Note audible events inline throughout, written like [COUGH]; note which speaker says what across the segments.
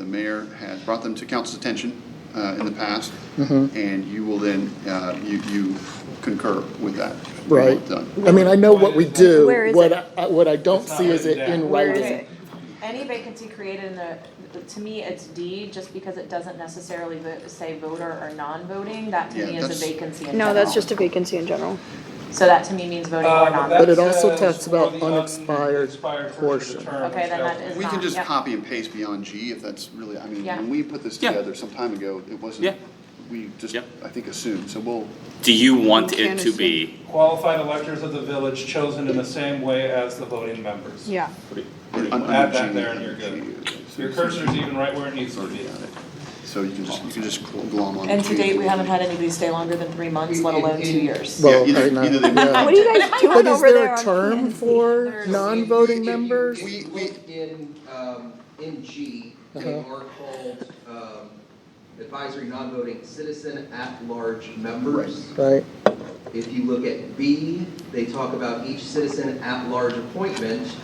Speaker 1: mayor has brought them to council's attention uh, in the past, and you will then, uh, you you concur with that.
Speaker 2: Right.
Speaker 1: Done.
Speaker 2: I mean, I know what we do.
Speaker 3: Where is
Speaker 2: What
Speaker 3: it?
Speaker 2: I, what I don't
Speaker 4: It's not
Speaker 2: see is it
Speaker 4: written down.
Speaker 2: in
Speaker 3: Where is
Speaker 2: writing.
Speaker 3: it?
Speaker 5: Any vacancy created in the, to me, it's D, just because it doesn't necessarily vo- say voter or non-voting, that to
Speaker 1: Yeah,
Speaker 5: me is
Speaker 1: that's-
Speaker 5: a vacancy in
Speaker 3: No,
Speaker 5: general.
Speaker 3: that's just a vacancy in general.
Speaker 5: So that to me means voting
Speaker 4: Uh,
Speaker 5: or
Speaker 4: that
Speaker 2: But
Speaker 5: non-voting.
Speaker 2: it also
Speaker 4: says
Speaker 2: talks about
Speaker 4: for the
Speaker 2: unexpired
Speaker 4: unexpired
Speaker 2: portion.
Speaker 4: of the term,
Speaker 5: Okay,
Speaker 4: which
Speaker 5: then that
Speaker 4: doesn't-
Speaker 5: is-
Speaker 1: We can
Speaker 5: not-
Speaker 1: just
Speaker 5: yeah.
Speaker 1: copy and paste beyond G if that's really, I mean,
Speaker 5: Yeah.
Speaker 1: when we put this
Speaker 6: Yeah.
Speaker 1: together some time ago, it
Speaker 6: Yeah.
Speaker 1: wasn't, we just,
Speaker 6: Yep.
Speaker 1: I think, assumed, so we'll,
Speaker 6: Do you want
Speaker 3: You
Speaker 6: it
Speaker 3: can't
Speaker 6: to be,
Speaker 4: Qualified electors of the village chosen in the same way as the voting members.
Speaker 3: Yeah.
Speaker 1: un- under G.
Speaker 4: Add that there and you're good.
Speaker 1: G, so
Speaker 4: Your
Speaker 1: it's-
Speaker 4: cursor's even right where it needs to
Speaker 1: Already
Speaker 4: be.
Speaker 1: got it. So you can just, you can just glom on.
Speaker 5: And
Speaker 1: G.
Speaker 5: to date, we haven't had anybody stay longer than three months, let alone two years.
Speaker 2: Well,
Speaker 1: Yeah, either-
Speaker 2: right now,
Speaker 1: either they-
Speaker 2: yeah.
Speaker 3: What are you guys doing
Speaker 2: But is
Speaker 3: over there
Speaker 2: there a
Speaker 3: on
Speaker 2: term for non-voting members?
Speaker 1: We-
Speaker 7: If you
Speaker 1: we-
Speaker 7: look in, um, in G, they
Speaker 2: Uh-huh.
Speaker 7: are called, um, advisory non-voting citizen at-large members.
Speaker 2: Right,
Speaker 7: If you look at B, they talk about each citizen at-large appointment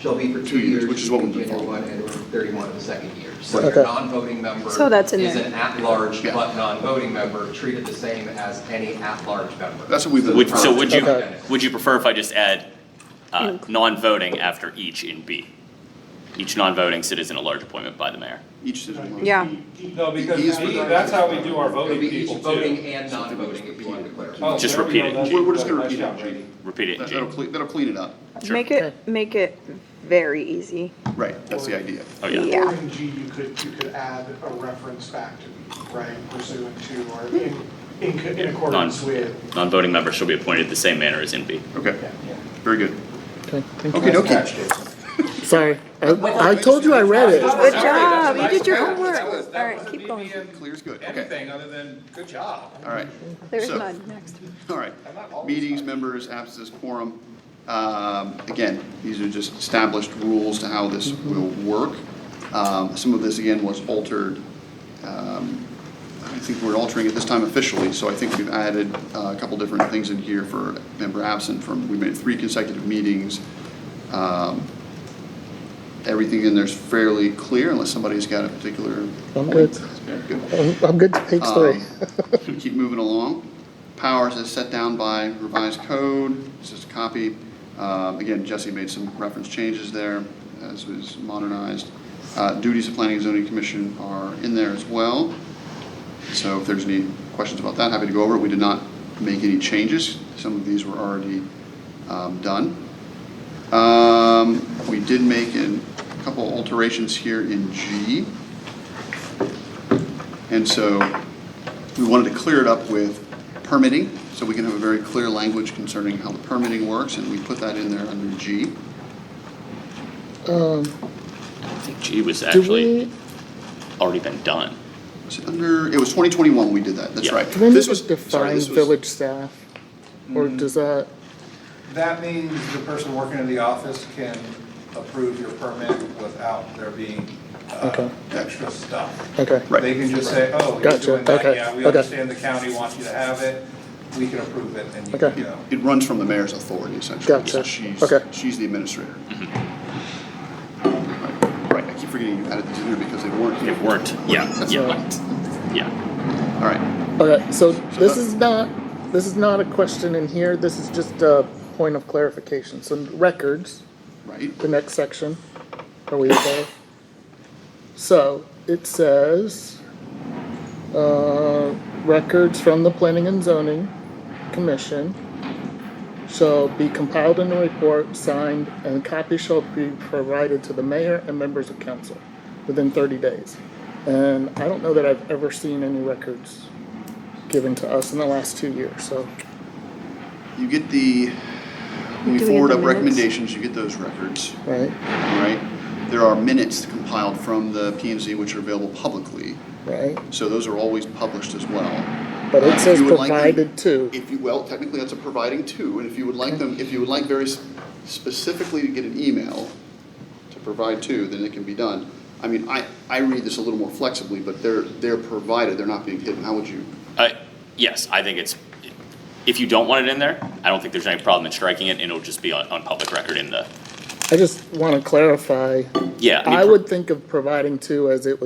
Speaker 7: shall be for two years.
Speaker 1: which is what we've been
Speaker 7: January one
Speaker 1: following.
Speaker 7: and thirty-one of the second year. So
Speaker 2: Right.
Speaker 7: your
Speaker 2: Okay.
Speaker 7: non-voting member.
Speaker 3: So that's in
Speaker 7: Is
Speaker 3: there.
Speaker 7: an at-large
Speaker 1: Yeah.
Speaker 7: but non-voting member treated the same as any at-large member.
Speaker 1: That's what we've been.
Speaker 6: would, so would you,
Speaker 2: Okay.
Speaker 6: would you prefer if I just add, uh, non-voting after each in B? Each non-voting citizen at large appointment by the mayor.
Speaker 1: Each citizen. will
Speaker 3: Yeah.
Speaker 1: be-
Speaker 4: No, because
Speaker 1: These
Speaker 4: we-
Speaker 1: were-
Speaker 4: that's how we do our
Speaker 7: It'll
Speaker 4: voting
Speaker 7: be each
Speaker 4: people
Speaker 7: voting
Speaker 4: too.
Speaker 7: and non-voting if you want to clarify.
Speaker 4: Oh,
Speaker 6: Just
Speaker 4: there we go.
Speaker 6: repeat it.
Speaker 4: That's-
Speaker 1: We're, we're just gonna
Speaker 4: that's
Speaker 1: repeat
Speaker 4: nice
Speaker 1: it,
Speaker 4: job,
Speaker 1: G.
Speaker 4: Brady.
Speaker 6: Repeat it in
Speaker 1: That- That'll
Speaker 6: G.
Speaker 1: clean, that'll clean it up.
Speaker 6: Sure.
Speaker 3: Make it, make it very easy.
Speaker 1: Right, that's the idea.
Speaker 6: Oh, yeah.
Speaker 3: Yeah.
Speaker 8: Or in G, you could, you could add a reference back to, right, pursuant to, or in, in co- in accordance
Speaker 6: Non-
Speaker 8: with.
Speaker 6: Non-voting members shall be appointed the same manner as in B.
Speaker 1: Okay,
Speaker 8: yeah.
Speaker 1: very good.
Speaker 2: okay, thank
Speaker 1: Okay,
Speaker 2: you.
Speaker 1: okay.
Speaker 2: Sorry, I I told you I read it.
Speaker 3: Good
Speaker 4: Sorry,
Speaker 3: job,
Speaker 4: that's
Speaker 3: you did your
Speaker 4: nice.
Speaker 3: homework.
Speaker 4: That was- that
Speaker 3: All right,
Speaker 4: wasn't
Speaker 3: keep
Speaker 4: me
Speaker 3: going.
Speaker 4: being
Speaker 1: Clear's good, okay,
Speaker 4: Anything other than, good job.
Speaker 1: all right,
Speaker 3: There is
Speaker 1: So-
Speaker 3: none, next.
Speaker 1: all right.
Speaker 4: I'm not always
Speaker 1: Meetings,
Speaker 4: fine.
Speaker 1: members, absences, quorum. Um, Again, these are just established rules to how this will work. Um, Some of this, again, was altered. um, I think we're altering it this time officially, so I think we've added uh, a couple different things in here for member absent from, we made three consecutive meetings. Um, Everything in there's fairly clear unless somebody's got a particular.
Speaker 2: I'm good.
Speaker 1: Good.
Speaker 2: I'm I'm good to page three.
Speaker 1: [LAUGHS] Um, Keep moving along. Powers as set down by revised code, it's just a copy. Um, Again, Jesse made some reference changes there as was modernized. Uh, Duties of Planning and Zoning Commission are in there as well. So if there's any questions about that, happy to go over it. We did not make any changes. Some of these were already um, done. Um, We did make an- a couple alterations here in G. And so we wanted to clear it up with permitting, so we can have a very clear language concerning how the permitting works, and we put that in there under G.
Speaker 6: I think G was
Speaker 2: Do
Speaker 6: actually
Speaker 2: we,
Speaker 6: already been done.
Speaker 1: Was it under, it was 2021 we did that, that's
Speaker 6: Yeah.
Speaker 1: right.
Speaker 2: do we need
Speaker 1: This
Speaker 2: to
Speaker 1: was sorry,
Speaker 2: define
Speaker 1: this was- Mm.
Speaker 2: village staff? Or does that,
Speaker 4: That means the person working in the office can approve your permit without there being uh,
Speaker 2: Okay.
Speaker 4: extra stuff.
Speaker 2: okay,
Speaker 1: Right.
Speaker 4: They can just say, oh, you're
Speaker 2: Gotcha.
Speaker 4: doing that,
Speaker 2: Okay.
Speaker 4: yeah, we
Speaker 2: Okay.
Speaker 4: understand the county wants you to have it, we can approve it, and you
Speaker 2: Okay.
Speaker 4: can go.
Speaker 1: It runs from the mayor's authority essentially.
Speaker 2: Gotcha.
Speaker 1: So She's,
Speaker 2: Okay.
Speaker 1: she's the administrator. Right, I keep forgetting you added these in here because they weren't
Speaker 6: Mm-hmm. They
Speaker 1: here.
Speaker 6: weren't, yeah,
Speaker 1: That's
Speaker 6: yeah, yeah.
Speaker 1: All right,
Speaker 2: okay, so this
Speaker 1: that-
Speaker 2: is not, this is not a question in here, this is just a point of clarification. So records,
Speaker 1: right,
Speaker 2: the next section. Are we okay? So it says, uh, records from the Planning and Zoning Commission shall be compiled in a report, signed, and copies shall be provided to the mayor and members of council within thirty days. And I don't know that I've ever seen any records given to us in the last two years, so.
Speaker 1: you get the, when we
Speaker 3: Do we get
Speaker 1: forward
Speaker 3: the
Speaker 1: up
Speaker 3: minutes?
Speaker 1: recommendations, you get those records.
Speaker 2: Right,
Speaker 1: All right, there are minutes compiled from the P and Z which are available publicly,
Speaker 2: right,
Speaker 1: so those are always published as well.
Speaker 2: but it says
Speaker 1: You would like them-
Speaker 2: provided to.
Speaker 1: If you, well, technically that's a providing too, and if you would like them, if you would like very s- specifically to get an email to provide to, then it can be done. I mean, I, I read this a little more flexibly, but they're, they're provided, they're not being hidden, how would you?
Speaker 6: Uh, yes, I think it's, if you don't want it in there, I don't think there's any problem in striking it, and it'll just be on, on public record in the,
Speaker 2: I just want to clarify,
Speaker 6: yeah. mean,
Speaker 2: I
Speaker 6: per-
Speaker 2: would think of providing two as it was.